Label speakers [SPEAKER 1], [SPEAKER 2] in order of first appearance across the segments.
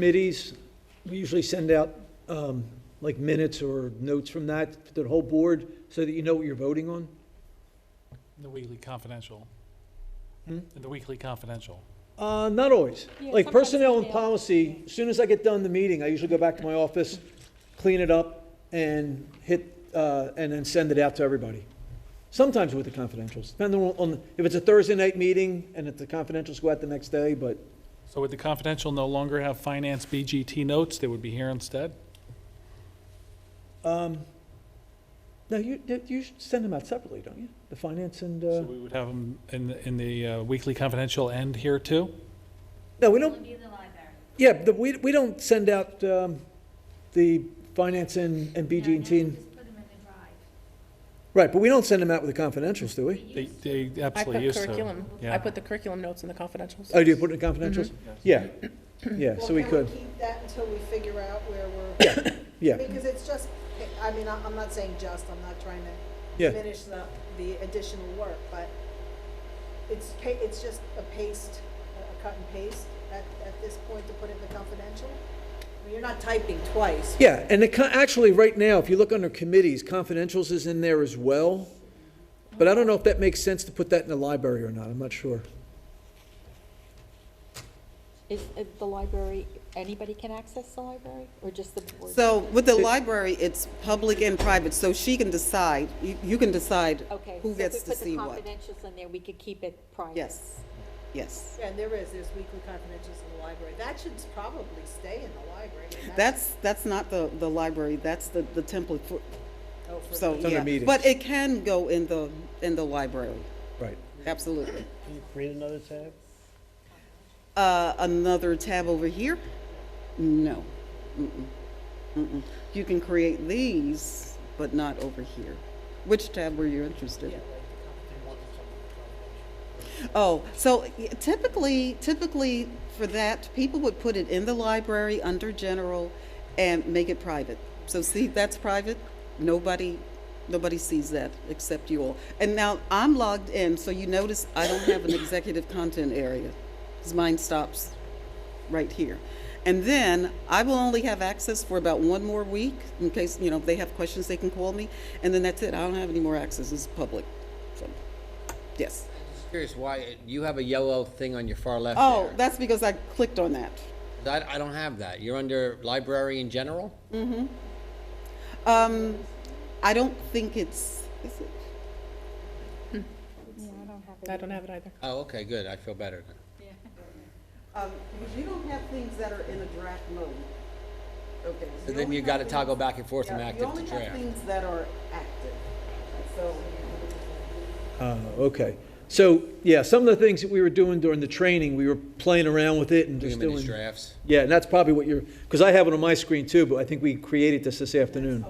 [SPEAKER 1] committees, we usually send out um, like minutes or notes from that to the whole board so that you know what you're voting on?
[SPEAKER 2] The Weekly Confidential.
[SPEAKER 1] Hmm?
[SPEAKER 2] The Weekly Confidential.
[SPEAKER 1] Uh, Not always.
[SPEAKER 3] Yeah,
[SPEAKER 1] Like
[SPEAKER 3] sometimes
[SPEAKER 1] personnel and
[SPEAKER 3] they are.
[SPEAKER 1] policy, as soon as I get done the meeting, I usually go back to my office, clean it up, and hit, uh, and then send it out to everybody. Sometimes with the confidentials, depending on- on, if it's a Thursday night meeting and if the confidentials go out the next day, but
[SPEAKER 2] So would the confidential no longer have finance BGT notes? They would be here instead?
[SPEAKER 1] Um, No, you, you should send them out separately, don't you? The finance and, uh,
[SPEAKER 2] So we would have them in, the- in the uh, Weekly Confidential and here too?
[SPEAKER 1] no, we don't. Yeah, the, we, we don't send out, um, the finance and, and BG&T. and- Right, but we don't send them out with the confidentials, do we?
[SPEAKER 2] They, they
[SPEAKER 4] I put
[SPEAKER 2] absolutely used to.
[SPEAKER 4] curriculum,
[SPEAKER 2] Yeah.
[SPEAKER 4] I put the curriculum notes in the confidentials.
[SPEAKER 1] Oh, do you put it in confidentials? Yeah, yeah, so we
[SPEAKER 5] Mm-hmm. Well,
[SPEAKER 1] could,
[SPEAKER 5] can we keep that until we figure out where we're,
[SPEAKER 1] yeah,
[SPEAKER 5] because it's just, I mean, I- I'm not saying just, I'm not trying to
[SPEAKER 1] yeah.
[SPEAKER 5] diminish the, the additional work, but it's, pa- it's just a paste, a cut and paste at, at this point to put in the confidential. I mean, You're not typing twice.
[SPEAKER 1] Yeah, and it, co- actually, right now, if you look under committees, confidentials is in there as well. But I don't know if that makes sense to put that in the library or not, I'm not sure.
[SPEAKER 3] Is uh, the library, anybody can access the library, or just the board?
[SPEAKER 6] So with the library, it's public and private, so she can decide, you you can decide
[SPEAKER 3] Okay, so
[SPEAKER 6] who
[SPEAKER 3] if we
[SPEAKER 6] gets to
[SPEAKER 3] put the
[SPEAKER 6] see what.
[SPEAKER 3] confidentials in there, we could keep it private.
[SPEAKER 6] Yes, yes.
[SPEAKER 5] Yeah, And there is, there's weekly confidentials in the library. That should probably stay in the library. and
[SPEAKER 6] That's, that's not the, the library, that's the, the template for,
[SPEAKER 5] oh, for
[SPEAKER 6] so,
[SPEAKER 5] me.
[SPEAKER 1] under
[SPEAKER 6] yeah.
[SPEAKER 1] meetings.
[SPEAKER 6] But it can go in the, in the library,
[SPEAKER 1] Right.
[SPEAKER 6] absolutely.
[SPEAKER 7] Can you create another tab?
[SPEAKER 6] Uh, another tab over here? No. Mm-mm. Mm-mm. You can create these, but not over here. Which tab were you interested in? Oh, so y- typically, typically for that, people would put it in the library under general and make it private. So see, that's private. Nobody, nobody sees that except you all. And now I'm logged in, so you notice I don't have an executive content area. 'cause mine stops right here. And then I will only have access for about one more week in case, you know, if they have questions, they can call me. And then that's it. I don't have any more access. It's public. So, yes.
[SPEAKER 8] Just curious why it- you have a yellow thing on your far left
[SPEAKER 6] Oh,
[SPEAKER 8] there.
[SPEAKER 6] that's because I clicked on that.
[SPEAKER 8] That- I don't have that. You're under library in general?
[SPEAKER 6] Um, I don't think it's, is it?
[SPEAKER 3] Yeah, I don't have it.
[SPEAKER 4] I don't have it either.
[SPEAKER 8] Oh, okay, good. I feel better then.
[SPEAKER 6] Um, you don't have things that are in a draft mode. Okay.
[SPEAKER 8] So then you gotta toggle back and forth from
[SPEAKER 6] Yeah,
[SPEAKER 8] active to
[SPEAKER 6] You only have
[SPEAKER 8] draft.
[SPEAKER 6] things that are active. So,
[SPEAKER 1] Uh, okay. So, yeah, some of the things that we were doing during the training, we were playing around with it and
[SPEAKER 8] Doing
[SPEAKER 1] just
[SPEAKER 8] them in these
[SPEAKER 1] doing.
[SPEAKER 8] drafts.
[SPEAKER 1] Yeah, and that's probably what you're, because I have it on my screen too, but I think we created this this afternoon.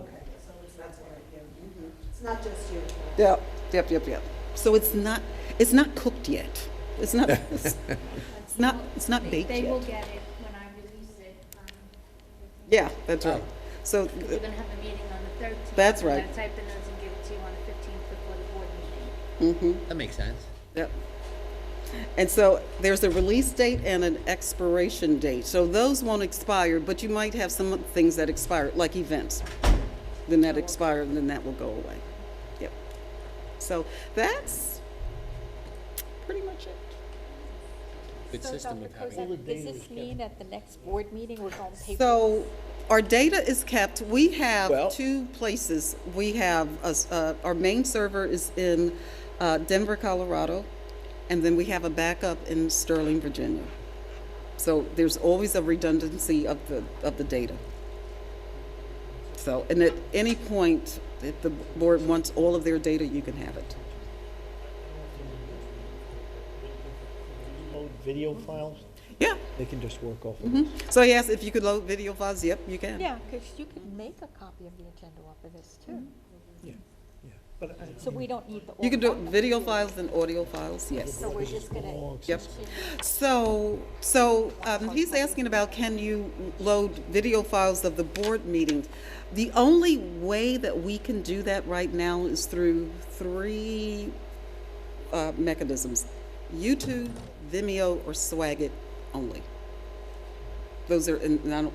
[SPEAKER 5] It's not just you.
[SPEAKER 6] yep, yep, yep, yep. So it's not, it's not cooked yet. It's not, it's not, it's not
[SPEAKER 9] They-
[SPEAKER 6] baked
[SPEAKER 9] They will
[SPEAKER 6] yet.
[SPEAKER 9] get it when I release it. um,
[SPEAKER 6] Yeah, that's right.
[SPEAKER 8] Oh.
[SPEAKER 6] So,
[SPEAKER 9] Because we're gonna have a meeting on the thirteenth.
[SPEAKER 6] That's right.
[SPEAKER 9] I'm gonna type in those and give it to you on the fifteenth before the board meeting.
[SPEAKER 6] mm-hmm.
[SPEAKER 8] That makes sense.
[SPEAKER 6] Yep. And so there's a release date and an expiration date. So those won't expire, but you might have some things that expire, like events. Then that expire, and then that will go away. Yep. So that's pretty much it.
[SPEAKER 8] Good
[SPEAKER 3] So,
[SPEAKER 8] system
[SPEAKER 3] Dr.
[SPEAKER 8] of having.
[SPEAKER 3] Kozak, Does this mean at the next board meeting, we're going to pay?
[SPEAKER 6] So our data is kept, we
[SPEAKER 1] Well-
[SPEAKER 6] have two places. We have, a s- uh, our main server is in uh, Denver, Colorado, and then we have a backup in Sterling, Virginia. So there's always a redundancy of the, of the data. So, and at any point, if the board wants all of their data, you can have it.
[SPEAKER 7] Load video files?
[SPEAKER 6] Yeah,
[SPEAKER 1] They can just work off of it.
[SPEAKER 6] so yes, if you could load video files, yep, you can.
[SPEAKER 3] Yeah, because you could make a copy of the agenda off of this too.
[SPEAKER 8] Mm-hmm.
[SPEAKER 7] But I-
[SPEAKER 3] So we don't need the.
[SPEAKER 6] You can do
[SPEAKER 3] old one.
[SPEAKER 6] video files and audio files, yes.
[SPEAKER 3] So we're just gonna.
[SPEAKER 6] Yep. So, so um, he's asking about can you load video files of the board meetings? The only way that we can do that right now is through three uh, mechanisms: YouTube, Vimeo, or Swagit only. Those are, and I don't